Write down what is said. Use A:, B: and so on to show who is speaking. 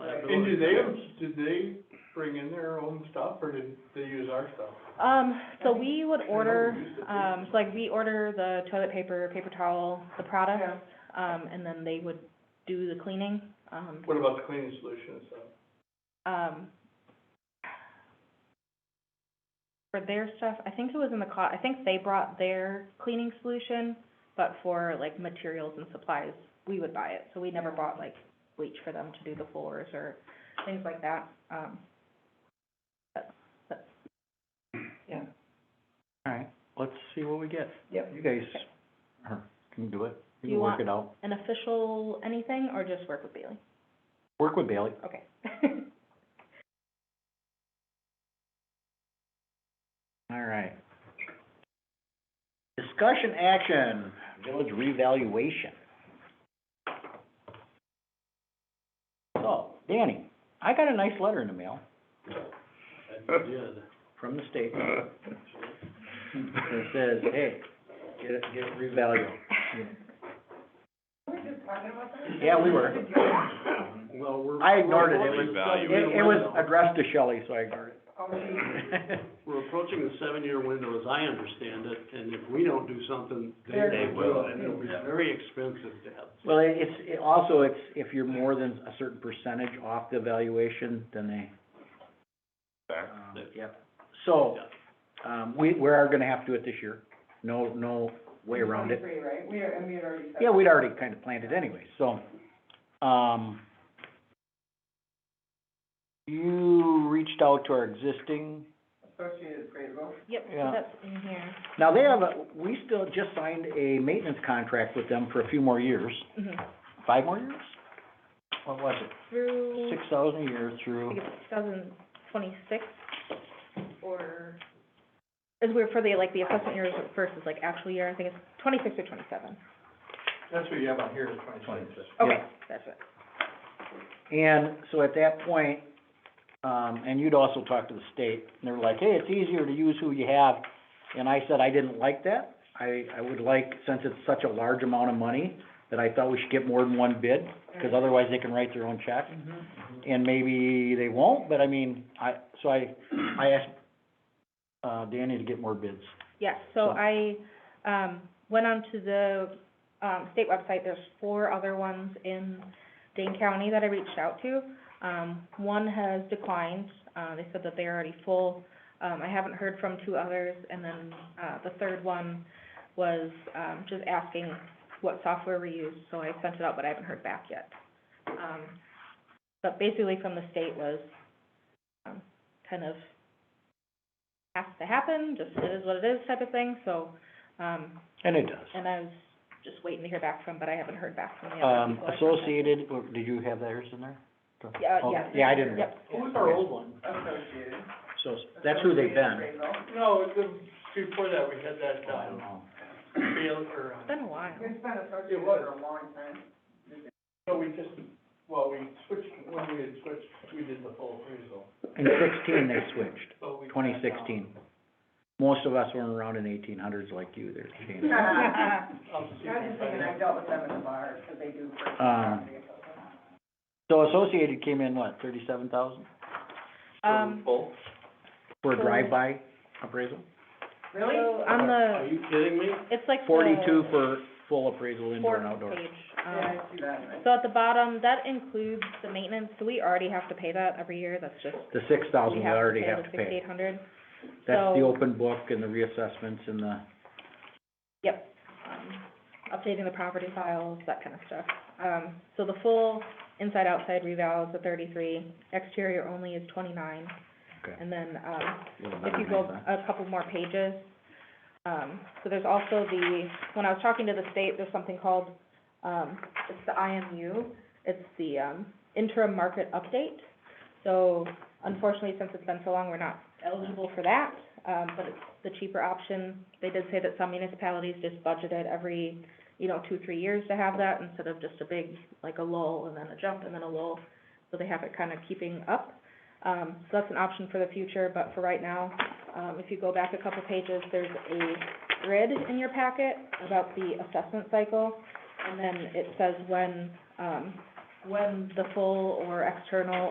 A: And do they, did they bring in their own stuff, or did they use our stuff?
B: Um, so
C: I think-
B: we would order,
A: we used to do
B: um, so like we order the toilet paper, paper towel, the products, um, and then they would do the cleaning, um,
A: What about the cleaning solution and stuff?
B: um, for their stuff, I think it was in the co- I think they brought their cleaning solution, but for like materials and supplies, we would buy it, so we never bought like bleach for them to do the floors or things like that, um. That's, that's
C: Yeah,
D: All right, let's see what we get.
C: Yep.
D: You guys are- can do it,
B: Do
D: you
B: you
D: can work
B: want-
D: it out.
B: an official anything, or just work with Bailey?
D: Work with Bailey.
B: Okay.
D: All right. Discussion action, village revaluation. So, Danny, I got a nice letter in the mail from the state. It says, hey, get it, get it revalued. Yeah, we were.
A: Well, we're.
D: I ignored it, it was, it,
E: Revaluing.
D: it was addressed to Shelley, so I ignored
C: Oh,
D: it.
F: We're approaching the seven-year window, as I understand it, and if we don't do something, they
C: They're-
F: they will. And it'll be
E: Yeah.
F: very expensive to have.
D: Well, it- it's, it also, it's, if you're more than a certain percentage off the valuation, then they,
E: Back.
D: um,
F: They-
D: yep. So, um, we, we are gonna have to do it this year, no, no way around it.
C: Twenty-three, right? We are, and we had already said.
D: Yeah, we'd already kind of planned it anyway, so, um, you reached out to our existing,
C: Associated Gradeville.
B: Yep, so
D: Yeah.
B: that's in here.
D: now they have, a we still just signed a maintenance contract with them for a few more years,
B: Mhm.
D: five more years? What was it?
B: Through,
D: Six thousand a year
B: I
D: through.
B: think it's two thousand twenty-six, or, is we're for the, like, the assessment years versus like actual year, I think it's twenty-six or twenty-seven.
A: That's what you have on here, is twenty-six.
B: Okay, that's it.
D: And so at that point, um, and you'd also talk to the state, and they were like, hey, it's easier to use who you have. And I said, I didn't like that. I, I would like, since it's such a large amount of money, that I thought we should get more than one bid, because otherwise they can write their own check.
A: Mm-hmm.
D: And maybe they won't, but I mean, I, so I, I asked, uh, Danny to get more bids.
B: Yes, so
D: So-
B: I, um, went onto the, um, state website, there's four other ones in Dane County that I reached out to. Um, one has declined, uh, they said that they're already full, um, I haven't heard from two others, and then, uh, the third one was, um, just asking what software we use, so I sent it out, but I haven't heard back yet. Um, but basically from the state was, um, kind of has to happen, just it is what it is type of thing, so, um,
D: And it does.
B: and I was just waiting to hear back from, but I haven't heard back from the other
D: Um,
B: people. I
D: Associated, or did you have theirs in there?
B: contacted. Yeah,
D: Oh,
B: yeah.
D: Yeah, I didn't.
B: Yep.
A: What was our old one?
C: Associated.
D: So, that's who they've been.
C: Associated Gradeville.
A: No, the, before that, we had that,
D: I don't
A: um,
D: know.
A: field, or,
B: It's
A: uh,
B: been a while.
C: It's been associated
A: It was.
C: for a long time.
A: so we just, well, we switched, when we had switched, we did the full appraisal.
D: In sixteen, they switched,
A: but we cut
D: twenty
A: down.
D: sixteen. Most of us weren't around in eighteen hundreds like you, there's a change.
C: I'm
A: I'm just
C: just thinking, I dealt with them in the bar, because they do. purchase
D: Um,
C: property assessment.
D: So Associated came in, what, thirty-seven thousand
B: Um,
A: Full.
D: for a
B: So-
D: drive-by appraisal?
C: Really?
B: so on
F: Are
B: the,
F: you kidding me?
B: it's like the
D: Forty-two for full appraisal, indoor and
B: fourth
D: outdoor.
B: page.
C: Yeah,
B: Um,
C: I see that, and I-
B: so at the bottom, that includes the maintenance, so we already have to pay that every year, that's just,
D: The six thousand
B: we
D: we
B: have to
D: already
B: pay
D: have
B: the
D: to pay.
B: sixty-eight hundred.
D: That's the
B: So-
D: open book and the reassessments and the,
B: Yep, um, updating the property files, that kind of stuff. Um, so the full inside-outside reval is a thirty-three, exterior only is twenty-nine.
D: Okay.
B: And then, um,
D: little
B: if
D: better
B: you
D: than
B: go
D: that.
B: a couple more pages. Um, so there's also the, when I was talking to the state, there's something called, um, it's the IMU. It's the, um, interim market update. So unfortunately, since it's been so long, we're not eligible for that, um, but it's the cheaper option. They did say that some municipalities just budget it every, you know, two, three years to have that instead of just a big, like a lull and then a jump and then a lull. So they have it kind of keeping up. Um, so that's an option for the future, but for right now, um, if you go back a couple pages, there's a grid in your packet about the assessment cycle. And then it says when, um, when the full or external